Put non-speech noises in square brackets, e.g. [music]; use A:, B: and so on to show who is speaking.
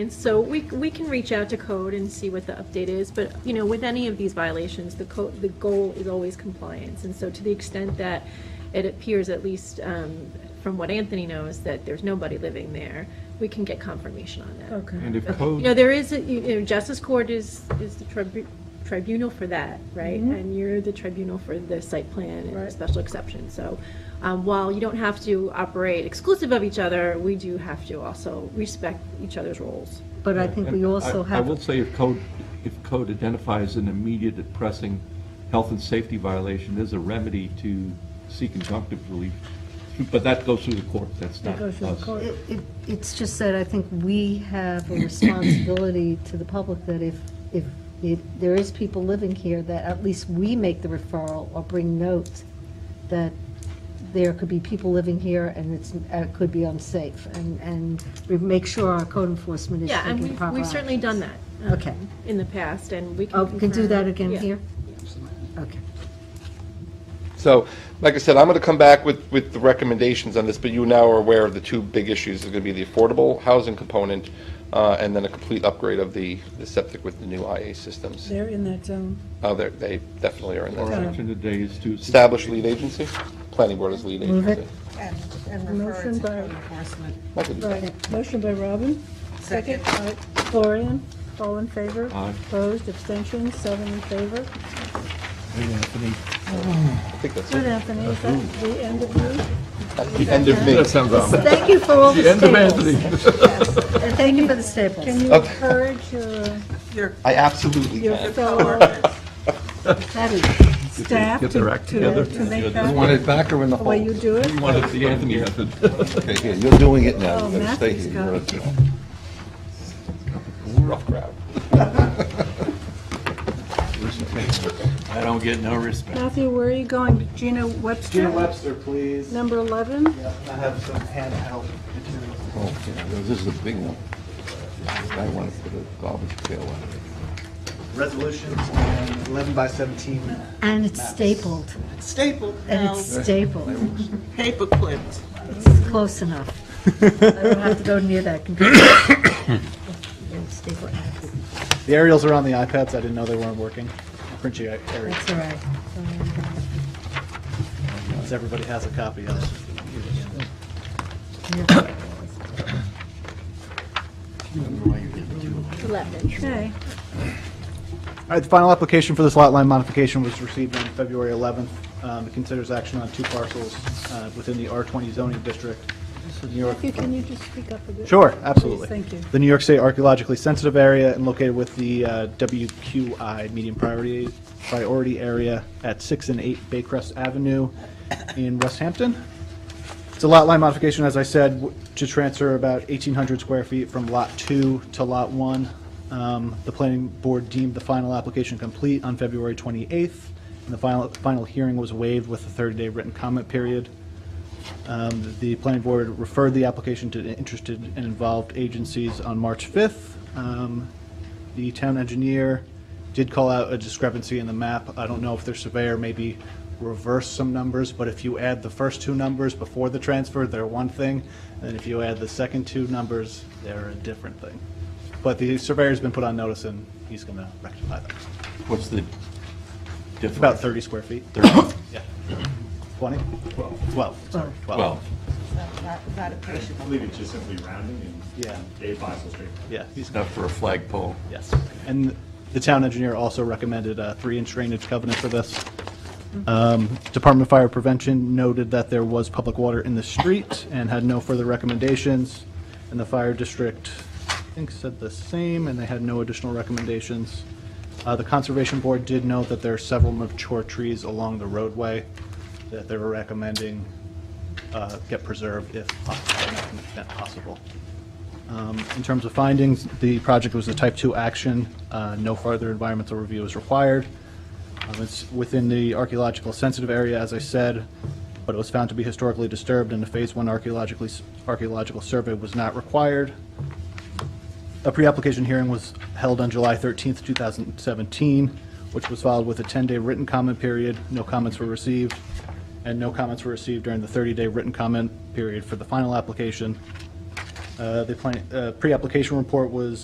A: And so we, we can reach out to code and see what the update is, but, you know, with any of these violations, the code, the goal is always compliance. And so to the extent that it appears, at least um, from what Anthony knows, that there's nobody living there, we can get confirmation on that.
B: Okay.
C: And if
A: You know,
C: code,
A: there is, a- you know, Justice Court is, is the tribu- tribunal for that, right?
B: Mhm.
A: And you're the tribunal for the site plan and the
B: Right.
A: special exception. So um, while you don't have to operate exclusive of each other, we do have to also respect each other's roles.
B: But I think we
C: and
B: also
C: I- I will
B: have,
C: say if code, if code identifies an immediate and pressing health and safety violation, there's a remedy to seek injunctive relief, but that goes through the court, that's
B: That
C: not
B: goes through the
C: us.
B: court.
C: Right,
B: It- it- it's just that I think we have a responsibility to the public that if, if it- there is people living here, that at least we make the referral or bring note that there could be people living here and it's, uh, it could be unsafe. And, and we make sure our code enforcement is
A: Yeah, and
B: taking
A: we've,
B: proper
A: we've certainly done
B: actions.
A: that. um,
B: Okay.
A: In the past, and we can.
B: Oh, we can do
A: confirm-
B: that again
A: yeah.
B: here? Okay.
D: So, like I said, I'm going to come back with, with the recommendations on this, but you now are aware of the two big issues. There's going to be the affordable housing component, uh, and then a complete upgrade of the, the septic with the new IA systems.
E: They're in that um, zone.
D: Oh, they're, they definitely are in
C: Our
D: that.
C: action today is to.
D: Establish lead agency, planning board as lead
B: Move it.
D: agency.
F: And and refer
E: Motion
F: it to
E: by,
F: code enforcement.
D: I could do that.
E: right, motion by Robin, second
F: Second.
E: by Florian, all in favor?
C: Aye.
E: Opposed, abstentions, seven in favor.
C: Hey, Anthony.
D: I think that's
E: Good, Anthony, is that the end of you?
D: it. The end of me.
B: Thank you for all the
C: End of
B: [laughs] staples.
C: Anthony.
B: And thank you for the staples.
E: Can you
D: Okay.
E: encourage your,
F: Your
D: I absolutely
E: your
D: can.
E: fellow
B: That is-
E: staff to,
C: Get their act
E: to
C: together.
E: to make
G: You want
E: that
G: it back or in the
E: the
G: hole?
E: way you do it?
C: You wanted the Anthony method.
G: Okay, here, you're doing it now,
E: Oh,
G: you gotta stay
E: Matthew's
G: here.
E: got
G: You're
E: it.
G: gonna-
D: Rough crowd.
C: I don't get no respect.
E: Matthew, where are you going? Gina Webster?
H: Gina Webster, please.
E: Number 11?
H: Yeah, I have some handheld materials.
G: Oh, yeah, This is a big one. I want to put a garbage pail on it.
H: Resolutions and 11 by 17
B: And it's stapled,
H: stapled.
B: and it's stapled.
F: paper clipped.
B: It's close enough. I don't have to go near that computer. Yeah, staple it.
H: The aerials are on the iPads. I didn't know they weren't working. Print you aerials.
B: That's all right.
H: Since everybody has a copy of it.
E: Okay.
H: All right, the final application for this lot line modification was received on February 11th. Um, It considers action on two parcels uh, within the R20 zoning district. New York-
E: Matthew, can you just speak up a bit?
H: Sure, absolutely.
E: Please, thank you.
H: The New York State Archaeologically Sensitive Area and located with the uh, WQI Medium Priority, Priority Area at 6 and 8 Baycrest Avenue in West Hampton. It's a lot line modification, as I said, w- to transfer about 1,800 square feet from Lot 2 to Lot 1. Um, The planning board deemed the final application complete on February 28th, and the final, final hearing was waived with a 30-day written comment period. Um, The planning board referred the application to interested and involved agencies on March 5th. Um, The town engineer did call out a discrepancy in the map. I don't know if their surveyor maybe reversed some numbers, but if you add the first two numbers before the transfer, they're one thing, and if you add the second two numbers, they're a different thing. But the surveyor's been put on notice, and he's going to rectify that.
C: What's the difference?
H: It's about 30 square feet.
C: 30.
H: Yeah. 20? 12. 12, sorry, 12.
C: Well,
F: Not not appreciable.
I: I believe it's just simply rounding and
H: Yeah,
I: Dave Beisel Street.
H: yeah, he's
C: it's not for a flagpole.
H: Yes. And the town engineer also recommended a three-inch drainage covenant for this. Um, Department of Fire Prevention noted that there was public water in the street and had no further recommendations. And the fire district, I think, said the same, and they had no additional recommendations. Uh, The Conservation Board did note that there are several mature trees along the roadway that they were recommending uh, get preserved if possible. if possible. Um, In terms of findings, the project was a type-two action. Uh, No further environmental review is required. Um, It's within the archaeological sensitive area, as I said, but it was found to be historically disturbed, and a Phase One archaeologically, archaeological survey was not required. A pre-application hearing was held on July 13th, 2017, which was followed with a 10-day written comment period. No comments were received, and no comments were received during the 30-day written comment period for the final application. Um, Uh, The plan- uh, pre-application report was